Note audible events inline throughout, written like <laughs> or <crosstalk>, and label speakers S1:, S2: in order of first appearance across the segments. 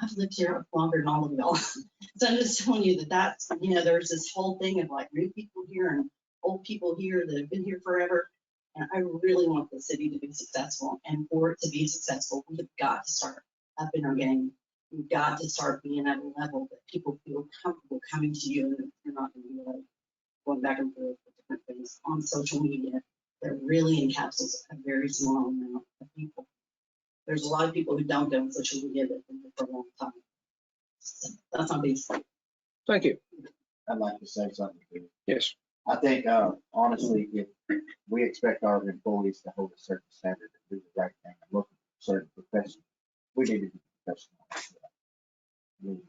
S1: I've lived here longer than all of y'all. <laughs> So I'm just telling you that that's, you know, there's this whole thing of like new people here and old people here that have been here forever. And I really want the city to be successful and for it to be successful, we have got to start up in our game. We've got to start being at a level that people feel comfortable coming to you and you're not gonna be like going back and forth with different things on social media. That really encapsulates a very small amount of people there's a lot of people who don't go on social media that have been there for a long time. So That's not being said.
S2: Thank you.
S3: I'd like to say something. too.
S2: Yes.
S3: I think, uh, honestly, if we expect our employees to hold a certain standard and do the right thing, and look at certain profession, we need to be professional. I mean,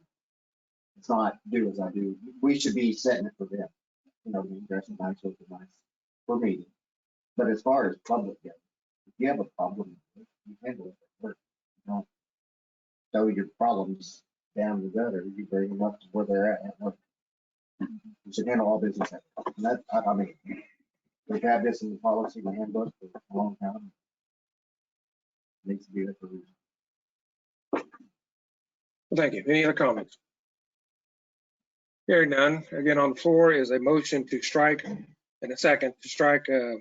S3: It's not do as I do. We should be setting it for them. You know, being dressed nice, looking nice for me. But as far as public goes, if you have a problem, you handle it at work. You don't throw your problems down the gutter. You bring them up to where they're at at work. You should handle all business. at work. And that, I, I mean, we've had this in the policy and handbook for a long time. Needs to be there for a reason.
S2: Thank you. Any other comments? Hearing none. Again, on the floor is a motion to strike and a second to strike uh,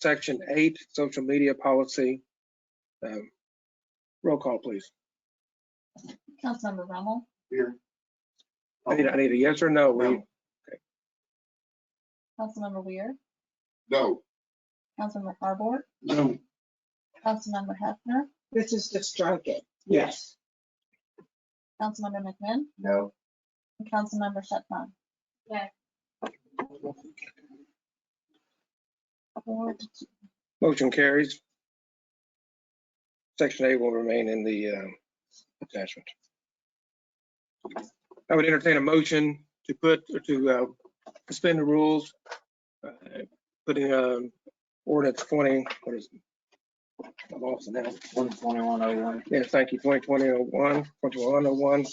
S2: section eight, social media policy. Um, Roll call, please.
S4: Councilmember Rommel,
S2: I need, I need a yes or no. We-
S4: Councilmember Weir,
S5: No,
S4: Councilmember Harbord,
S2: No.
S4: Councilmember Hefner,
S6: This is to strike it.
S2: Yes.
S4: Councilmember McMahon,
S3: No,
S4: and Councilmember Shetron.
S7: Yes.
S4: Four to
S2: Motion carries. Section eight will remain in the um, attachment. I would entertain a motion to put, to uh, suspend the rules, uh, putting um, ordinance 20, what is it? I lost it now.
S3: one twenty-one oh one.
S2: Yes, thank you, 2020-01, 2101.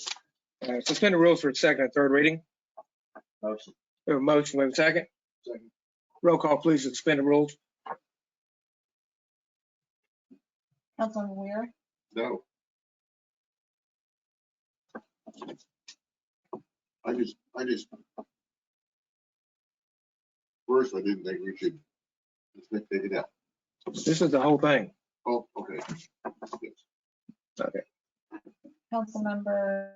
S2: Uh, Suspend the rules for its second and third reading.
S3: Motion.
S2: We have a motion, we have a second.
S5: Second.
S2: Roll call, please, to suspend the rules.
S4: Councilmember Weir,
S5: no. I just, I just. First, I didn't think we should just make, take it out.
S2: This is the whole thing.
S5: Oh, okay. Yes.
S2: Okay.
S4: Councilmember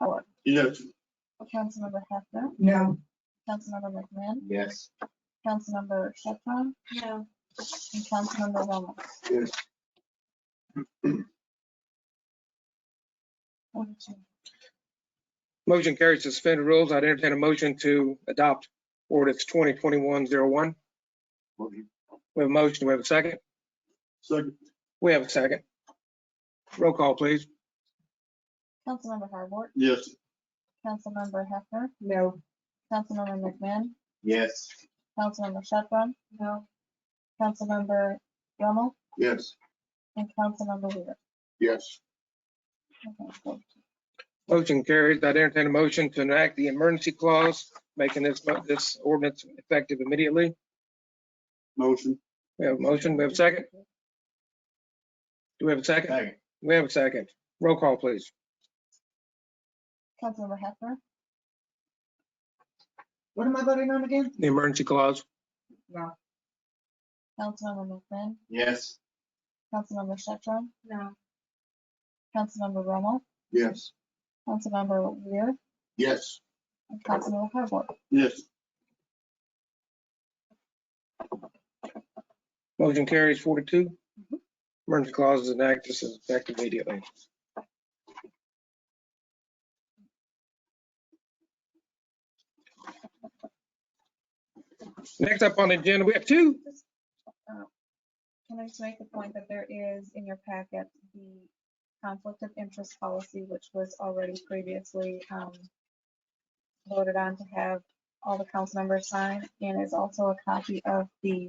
S4: Howard,
S5: Yes.
S4: Councilmember Hefner,
S6: No.
S4: Councilmember McMahon,
S3: Yes.
S4: Councilmember Shetron,
S7: No.
S4: and Councilmember Rommel.
S5: Yes.
S4: Four to two.
S2: Motion carries to suspend the rules. I'd entertain a motion to adopt ordinance 2021-01.
S5: Motion.
S2: We have a motion, we have a second.
S5: Second.
S2: We have a second. Roll call, please.
S4: Councilmember Harbord,
S5: Yes.
S4: Councilmember Hefner,
S6: No.
S4: Councilmember McMahon,
S3: Yes.
S4: Councilmember Shetron. No. Councilmember Rommel
S5: Yes.
S4: and Councilmember Weir.
S5: Yes.
S4: Okay, so
S2: Motion carries. I'd entertain a motion to enact the emergency clause, making this, this ordinance effective immediately.
S5: Motion.
S2: We have a motion, we have a second. Do we have a second?
S3: Second.
S2: We have a second. Roll call, please.
S4: Councilmember Hefner,
S6: What am I voting on again?
S2: The emergency clause.
S6: No.
S4: Councilmember McMahon,
S3: Yes.
S4: Councilmember Shetron,
S7: No.
S4: Councilmember Rommel,
S5: Yes.
S4: Councilmember Weir,
S5: Yes.
S4: and Councilmember Harbord.
S5: Yes.
S2: Motion carries 42. Emergency clause is enacted, this is effective immediately. Next up on the agenda, we have two.
S4: Can I just make the point that there is in your packet the conflict of interest policy, which was already previously um, voted on to have all the council members sign, and is also a copy of the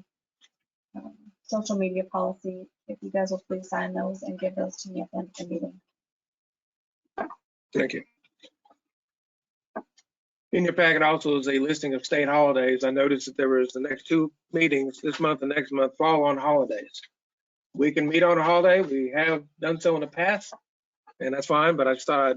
S4: um, social media policy. If you guys will please sign those and give those to me at the end of the meeting.
S2: Thank you. In your packet also is a listing of state holidays. I noticed that there was the next two meetings this month and next month fall on holidays. We can meet on a holiday. We have done so in the past. and that's fine, but I just thought I'd